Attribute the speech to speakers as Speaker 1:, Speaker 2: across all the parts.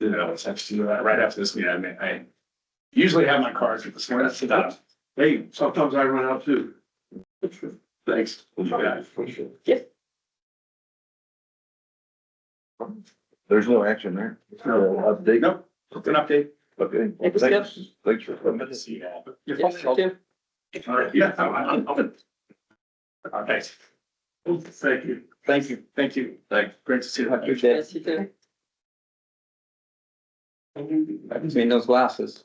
Speaker 1: you know, it's actually uh, right after this meeting, I mean, I usually have my cards with this one, that's enough.
Speaker 2: Hey, sometimes I run out too.
Speaker 1: Thanks.
Speaker 2: Yeah.
Speaker 3: There's no action there. No update.
Speaker 1: Nope, it's an update.
Speaker 3: Okay.
Speaker 4: Thank you,
Speaker 3: Thanks, thanks for coming.
Speaker 1: You're
Speaker 4: Yes,
Speaker 1: fine.
Speaker 4: you do.
Speaker 1: Yeah. I'm- I'm- I'm- Uh, Thanks.
Speaker 2: Thank you.
Speaker 1: Thank you. Thank you. Thanks. Great to see you.
Speaker 4: Yes, you do.
Speaker 5: I've seen those glasses.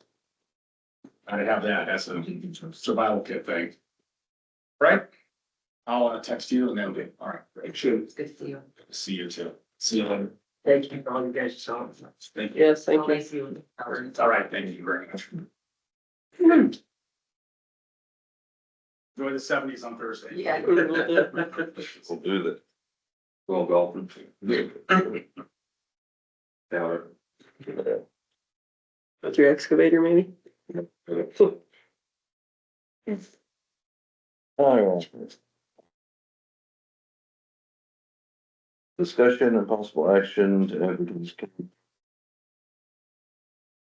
Speaker 1: I have that as a survival kit thing. Right? I'll uh, text you and then we, all right, great.
Speaker 2: Should.
Speaker 6: Good to you.
Speaker 1: See you too. See you later.
Speaker 6: Thank you for all you guys saw.
Speaker 1: Thank you.
Speaker 4: Yes, thank you.
Speaker 6: Always you.
Speaker 1: All right, thank you very much. Enjoy the seventies on Thursday.
Speaker 6: Yeah.
Speaker 3: We'll do that. Go golfing. Now, uh,
Speaker 4: With your excavator, maybe?
Speaker 3: Alright. Discussion and possible action to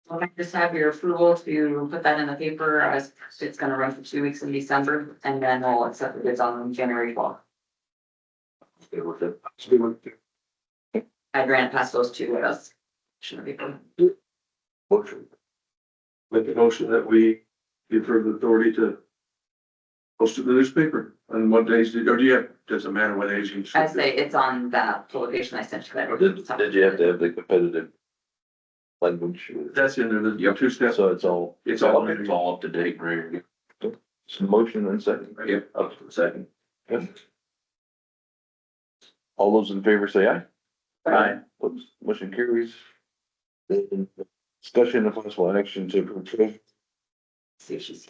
Speaker 6: Well, I just have your approval to put that in the paper as it's gonna run for two weeks in December and then we'll accept the bids on January twelfth. I ran past those two with us. Shouldn't be.
Speaker 3: motion.
Speaker 2: Make a motion that we give her the authority to post it in the newspaper. And what days, did- or do you have, doesn't matter what days you.
Speaker 6: I say it's on that publication I sent you. that-
Speaker 3: Did, did you have to have the competitive language?
Speaker 2: That's in there, the two steps.
Speaker 3: So it's all.
Speaker 2: It's all-
Speaker 3: It's all up to date, right? So motion and second.
Speaker 2: Yep.
Speaker 3: Up to second. All those in favor say aye.
Speaker 1: Aye.
Speaker 3: Oops, motion carries. Then Discussion and possible action to approve treasurer's
Speaker 6: See if she's.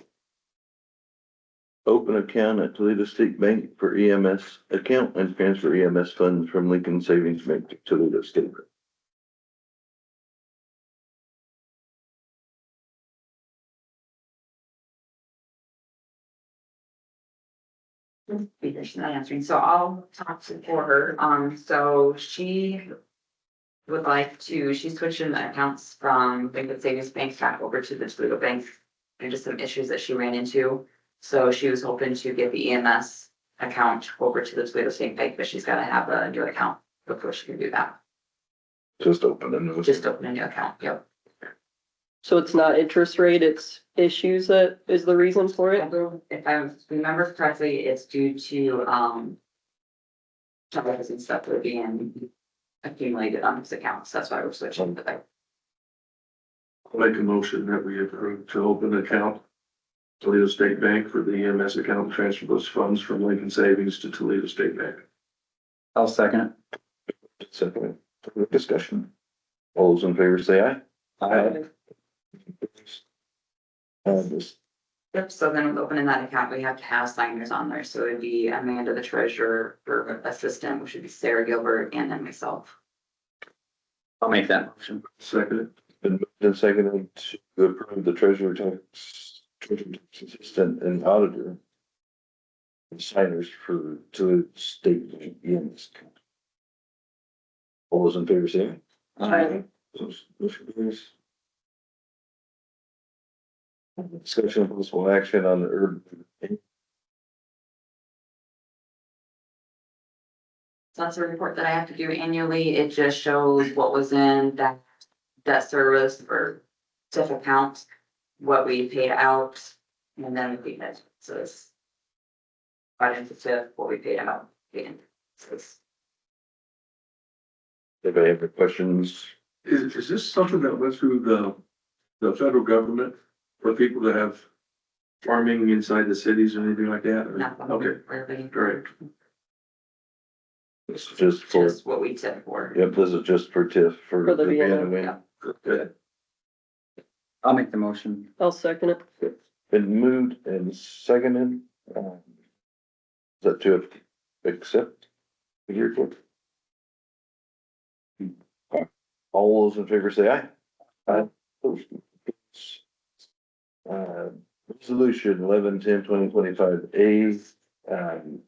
Speaker 3: open account at Toledo State Bank for EMS account and transfer EMS funds from Lincoln Savings Bank to Toledo State. Bank.
Speaker 6: She's not answering, so I'll talk to for her, um, so she. Would like to, she's switching the accounts from Lincoln Savings Bank back over to the Toledo Bank. And just some issues that she ran into, so she was hoping to get the EMS account over to the Toledo State Bank, but she's gotta have a new account before she can do that.
Speaker 3: Just open and.
Speaker 6: Just open a new account, yep.
Speaker 4: So it's not interest rate, it's issues that is the reason for it?
Speaker 6: If I remember correctly, it's due to, um. Charges and stuff that are being accumulated on this account, so that's why we're switching the bank.
Speaker 2: Make a motion that we approve to open an account. Toledo State Bank for the EMS account, and transfer those funds from Lincoln Savings to Toledo State Bank.
Speaker 5: I'll second it.
Speaker 3: Second, discussion. All those in favor say aye. Uh, this-
Speaker 6: Yep, so then with opening that account, we have to have signers on there, so it'd be Amanda, the treasurer, or assistant, which would be Sarah Gilbert, and then myself.
Speaker 5: I'll make that motion.
Speaker 2: Second,
Speaker 3: Been moved and seconded to approve the treasurer tax, treasurer tax assistant and auditor. and Signers for, to state E EMS. All those in favor say aye.
Speaker 4: Aye.
Speaker 3: Those- Motion carries. Discussion of possible action on the urban,
Speaker 6: So that's a report that I have to do annually, it just shows what was in that debt service or TIF account, what we paid out, and then we paid it, so this. Right into TIF, what we paid out, paid in. So it's-
Speaker 3: if I have any questions,
Speaker 2: is, is this something that went through the, the federal government for people that have farming inside the cities or anything like that?
Speaker 6: not one
Speaker 2: Okay,
Speaker 6: really,
Speaker 2: great.
Speaker 3: this is just for,
Speaker 6: Just what we tip for.
Speaker 3: yep, this is just for TIF, for.
Speaker 4: For the
Speaker 3: Vienna
Speaker 4: Vienna,
Speaker 3: Wing.
Speaker 6: yeah.
Speaker 2: Good.
Speaker 5: I'll make the motion.
Speaker 4: I'll second it.
Speaker 3: Been moved and seconded, um. Is that to accept? the report? Hmm. All those in favor say aye. Aye. Opposed? Uh, resolution eleven ten twenty twenty five A, um.